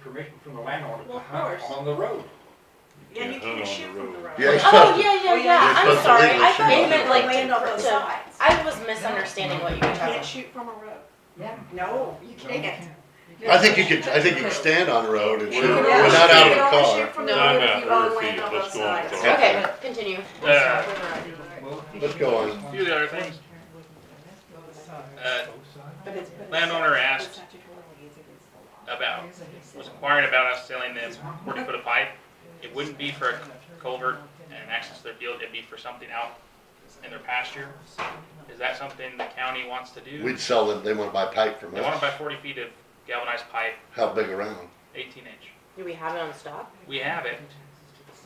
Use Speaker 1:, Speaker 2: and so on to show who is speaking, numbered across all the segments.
Speaker 1: permission from the landowner
Speaker 2: Well,
Speaker 1: to
Speaker 2: of
Speaker 1: hunt
Speaker 2: course.
Speaker 1: on the road.
Speaker 2: Yeah, you
Speaker 3: can't hunt
Speaker 2: can't
Speaker 3: on
Speaker 2: shoot
Speaker 3: the
Speaker 2: from the
Speaker 3: road.
Speaker 2: road.
Speaker 4: Yeah,
Speaker 5: Oh,
Speaker 4: exactly.
Speaker 5: yeah, yeah,
Speaker 2: Well, yeah,
Speaker 5: yeah,
Speaker 4: you're
Speaker 5: I'm
Speaker 4: supposed to
Speaker 5: sorry,
Speaker 4: legally
Speaker 5: I thought
Speaker 4: shoot
Speaker 5: you
Speaker 4: on
Speaker 5: meant
Speaker 4: the
Speaker 5: like
Speaker 4: road.
Speaker 5: land on both
Speaker 2: So-
Speaker 5: sides. I was misunderstanding what you were
Speaker 2: You can't
Speaker 5: talking
Speaker 2: shoot from a road.
Speaker 5: Yeah.
Speaker 2: No, you
Speaker 1: No,
Speaker 2: can't.
Speaker 4: about. I think you could, I think you could stand on the road and shoot,
Speaker 3: Yeah.
Speaker 4: we're not out of the
Speaker 2: You can only
Speaker 4: car.
Speaker 2: shoot from the
Speaker 5: No.
Speaker 2: road
Speaker 3: Time
Speaker 2: if you
Speaker 3: out,
Speaker 2: own
Speaker 3: Earth
Speaker 2: land
Speaker 3: Eve,
Speaker 2: on both
Speaker 3: let's go on
Speaker 2: sides.
Speaker 3: the
Speaker 4: Yeah.
Speaker 5: Okay, continue.
Speaker 6: Uh,
Speaker 1: Well,
Speaker 4: Let's go on.
Speaker 6: few of the other things. Uh,
Speaker 2: But it's- but it's-
Speaker 6: landowner
Speaker 2: it's
Speaker 6: asked
Speaker 2: statutorily, it's against the law.
Speaker 6: about, was inquiring about us selling them forty foot of pipe. It wouldn't be for a culvert and access to their field, it'd be for something out in their pasture. Is that something the county wants to do?
Speaker 4: We'd sell them, they wanna buy pipe from
Speaker 6: They want to buy
Speaker 4: us.
Speaker 6: forty feet of galvanized pipe,
Speaker 4: How big around?
Speaker 6: eighteen inch.
Speaker 5: Do we have it on stock?
Speaker 6: We have it,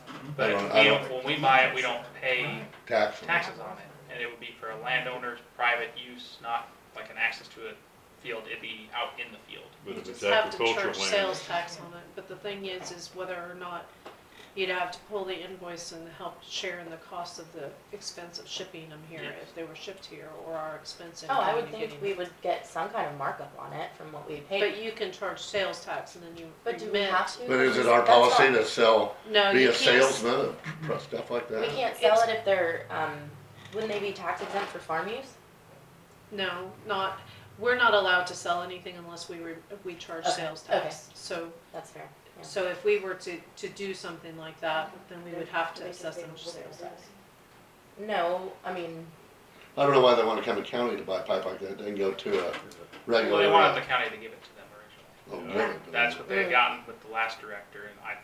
Speaker 4: I
Speaker 6: but
Speaker 4: don't- I
Speaker 6: we don't, when we buy it, we don't pay
Speaker 4: Tax them.
Speaker 6: taxes on it. And it would be for a landowner's private use, not like an access to a field, it'd be out in the field.
Speaker 3: But
Speaker 7: You
Speaker 3: if it's
Speaker 7: just have to
Speaker 3: agricultural
Speaker 7: charge
Speaker 3: land,
Speaker 7: sales tax on it, but the thing is, is whether or not you'd have to pull the invoice and help share in the cost of the expense of shipping them here,
Speaker 6: Yes.
Speaker 7: if they were shipped here, or our expense in
Speaker 5: Oh, I would
Speaker 7: county
Speaker 5: think
Speaker 7: getting
Speaker 5: we
Speaker 7: them.
Speaker 5: would get some kind of markup on it from what we paid.
Speaker 7: But you can charge sales tax and then you
Speaker 5: But do we
Speaker 7: remit.
Speaker 5: have to?
Speaker 4: But is it our
Speaker 5: That's all.
Speaker 4: policy to sell,
Speaker 7: No,
Speaker 4: be
Speaker 7: you
Speaker 4: a
Speaker 7: can't,
Speaker 4: salesman of stuff like
Speaker 5: We
Speaker 4: that?
Speaker 5: can't sell it if they're, um, wouldn't they be tax exempt for farm use?
Speaker 7: no, not, we're not allowed to sell anything unless we re, we charge
Speaker 5: Okay,
Speaker 7: sales
Speaker 5: okay.
Speaker 7: tax. So,
Speaker 5: That's fair. yeah.
Speaker 7: so if we were to, to do something like that, then we would have to assess them sales tax.
Speaker 5: No, I mean,
Speaker 4: I don't know why they wanna come to county to buy pipe like that, they can go to a
Speaker 6: Well,
Speaker 4: regular.
Speaker 6: they wanted the county to give it to them originally.
Speaker 4: Oh, really?
Speaker 6: That's what they had gotten with the last director, and I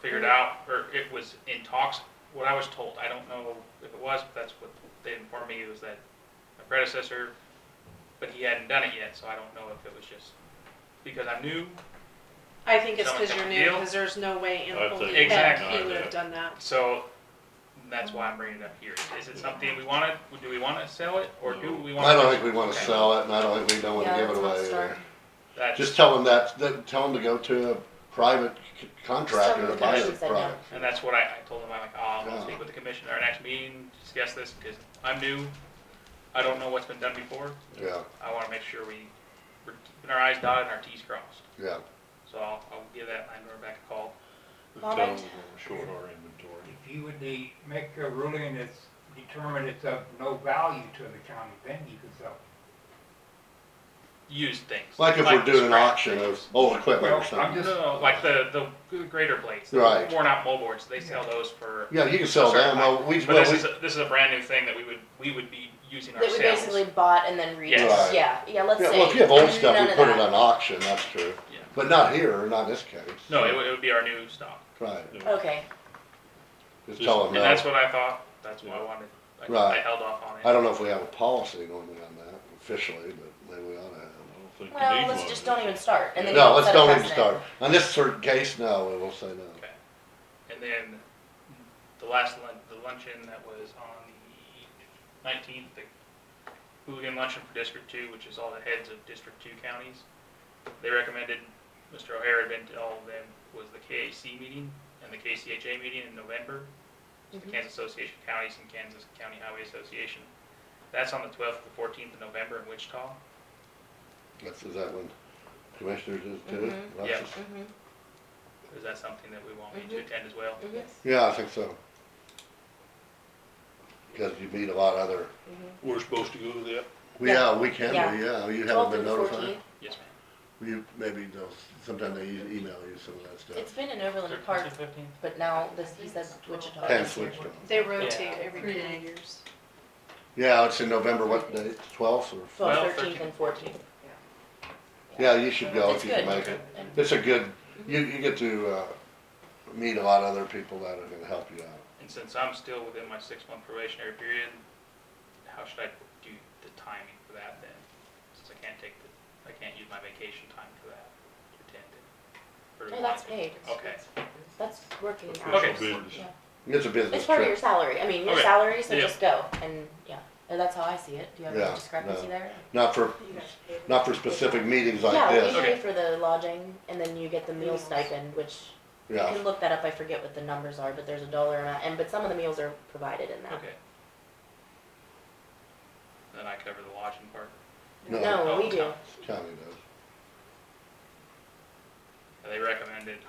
Speaker 6: figured out, or it was in talks, what I was told, I don't know if it was, but that's what they informed me, was that my predecessor, but he hadn't done it yet, so I don't know if it was just because I'm new,
Speaker 7: I think it's
Speaker 6: Someone
Speaker 7: because you're
Speaker 6: take a
Speaker 7: new,
Speaker 6: deal?
Speaker 7: because there's no way in
Speaker 3: I'd
Speaker 7: holy
Speaker 3: take
Speaker 6: it.
Speaker 7: heck
Speaker 3: Exactly.
Speaker 7: he would have done that.
Speaker 6: so that's why I'm bringing it up here. Is it something we wanted, do we wanna sell it, or do we wanna?
Speaker 4: I don't think we wanna
Speaker 6: Okay,
Speaker 4: sell it, and I don't think we don't wanna
Speaker 5: yeah,
Speaker 4: give
Speaker 5: that's
Speaker 4: it
Speaker 5: not
Speaker 4: away
Speaker 5: stock.
Speaker 4: either.
Speaker 6: That's,
Speaker 4: Just tell them that, that- tell them to go to a private c- contractor to
Speaker 5: Some
Speaker 4: buy the
Speaker 5: commission said no.
Speaker 4: product.
Speaker 6: and that's what I, I told him, I'm like, oh, I'll
Speaker 4: Yeah.
Speaker 6: speak with the commissioner our next meeting, discuss this, because I'm new, I don't know what's been done before.
Speaker 4: Yeah,
Speaker 6: I wanna make sure we, we're keeping our I's dotted and our T's crossed.
Speaker 4: yeah.
Speaker 6: So I'll, I'll give that landlord back a call.
Speaker 3: tell
Speaker 5: Comment?
Speaker 3: them we're short our inventory.
Speaker 1: If you would de- make a ruling that's determined it's of no value to the county, then you can sell. it.
Speaker 6: Used things.
Speaker 4: Like if we're
Speaker 6: the
Speaker 4: doing an
Speaker 6: scrap
Speaker 4: auction of
Speaker 6: things.
Speaker 4: old equipment
Speaker 1: Well,
Speaker 4: or
Speaker 1: I'm
Speaker 4: something.
Speaker 6: No, no, no, like the, the grater blades. the
Speaker 4: Right.
Speaker 6: Worn out moldboards, they sell those for,
Speaker 4: Yeah, you can sell them, well, we,
Speaker 6: but
Speaker 4: well,
Speaker 6: this
Speaker 4: we,
Speaker 6: is, a- this is a brand new thing that we would, we would be using
Speaker 5: That we
Speaker 6: ourselves.
Speaker 5: basically bought and then reused.
Speaker 4: Yes. Right.
Speaker 5: Yeah, yeah, let's
Speaker 4: yeah,
Speaker 5: say.
Speaker 4: well, if you have old stuff,
Speaker 5: none
Speaker 4: we
Speaker 5: of
Speaker 4: put it
Speaker 5: that.
Speaker 4: on auction, that's true.
Speaker 6: Yeah.
Speaker 4: But not here, or not in this case.
Speaker 6: No, it would, it would be our new stock.
Speaker 4: Right,
Speaker 5: Okay,
Speaker 4: just
Speaker 3: Just-
Speaker 4: tell them
Speaker 6: And that's
Speaker 4: that.
Speaker 6: what I thought, that's why I
Speaker 3: Yeah.
Speaker 6: wanted, I- I
Speaker 4: Oh, Right.
Speaker 6: held off on
Speaker 4: I
Speaker 6: it.
Speaker 4: don't know if we have a policy normally on that officially, but maybe we ought to
Speaker 3: I don't think you need
Speaker 5: well, let's
Speaker 3: one.
Speaker 5: just don't even start and then.
Speaker 4: have. No,
Speaker 5: we'll
Speaker 4: let's
Speaker 5: set a
Speaker 4: don't even
Speaker 5: precedent.
Speaker 4: start. On this certain case, no, we will say no.
Speaker 6: And then the last lun- the luncheon that was on the nineteenth, the hooligan luncheon for District Two, which is all the heads of District Two counties. They recommended, Mr. O'Hara had been to all of them, was the KAC meeting and the KCHA meeting in November. It's the
Speaker 5: Mhm.
Speaker 6: Kansas Association of Counties and Kansas County Highway Association. That's on the twelfth, the fourteenth of November in Wichita.
Speaker 4: That's, is that when commissioners is too?
Speaker 5: Mhm.
Speaker 4: That's
Speaker 6: Yeah.
Speaker 4: just-
Speaker 5: Mhm,
Speaker 6: Is that something that we want me to
Speaker 5: Mhm.
Speaker 6: attend as well?
Speaker 5: mhm,
Speaker 4: Yeah, I think so. Because you meet a lot of other,
Speaker 5: mhm.
Speaker 3: We're supposed to go to that?
Speaker 4: yeah, we can,
Speaker 5: Yeah.
Speaker 4: be, yeah, you haven't
Speaker 5: Twelve
Speaker 4: been
Speaker 5: and
Speaker 4: notified.
Speaker 5: fourteen.
Speaker 6: Yes, ma'am.
Speaker 4: You, maybe, they'll- sometime they e- email you some of that
Speaker 5: It's
Speaker 4: stuff.
Speaker 5: been in Overland
Speaker 6: 13th,
Speaker 5: Park,
Speaker 6: 15th?
Speaker 5: but now this, he says Wichita.
Speaker 4: Penn
Speaker 5: this year.
Speaker 4: switched on.
Speaker 7: They rotate
Speaker 6: Yeah.
Speaker 7: every
Speaker 5: Pretty
Speaker 7: three
Speaker 5: nice.
Speaker 7: years.
Speaker 4: Yeah, it's in November, what day, twelfth or?
Speaker 5: Twelve,
Speaker 6: Well,
Speaker 5: thirteenth and fourteenth.
Speaker 4: Yeah, you should go if
Speaker 5: It's
Speaker 4: you can
Speaker 5: good.
Speaker 4: make it.
Speaker 5: And-
Speaker 4: It's a good, you, you get to, uh, meet a lot of other people that are gonna help you out.
Speaker 6: And since I'm still within my six-month probationary period, how should I do the timing for that then? Since I can't take the, I can't use my vacation time for that, to attend it. Or do
Speaker 5: No,
Speaker 6: I-
Speaker 5: that's paid.
Speaker 6: Okay,
Speaker 5: That's working hours.
Speaker 6: Okay.
Speaker 3: Official business.
Speaker 5: Yeah.
Speaker 4: It's a business
Speaker 5: It's part of your
Speaker 4: trip.
Speaker 5: salary. I mean, your
Speaker 6: Okay.
Speaker 5: salary, so
Speaker 6: Yeah.
Speaker 5: just go and, yeah. And that's how I see it. Do you have
Speaker 4: Yeah,
Speaker 5: any discrepancy
Speaker 4: no.
Speaker 5: there?
Speaker 4: Not for,
Speaker 2: You guys pay for
Speaker 4: not for specific meetings like
Speaker 5: Yeah, we
Speaker 4: this.
Speaker 6: Okay.
Speaker 5: pay for the lodging and then you get the meal
Speaker 2: Meals.
Speaker 5: stipend, which you
Speaker 4: Yeah,
Speaker 5: can look that up. I forget what the numbers are, but there's a dollar amount and, but some of the meals are provided in that.
Speaker 6: okay. Then I cover the lodging part.
Speaker 4: no,
Speaker 5: No, we do.
Speaker 6: Oh,
Speaker 4: county does.
Speaker 6: they recommended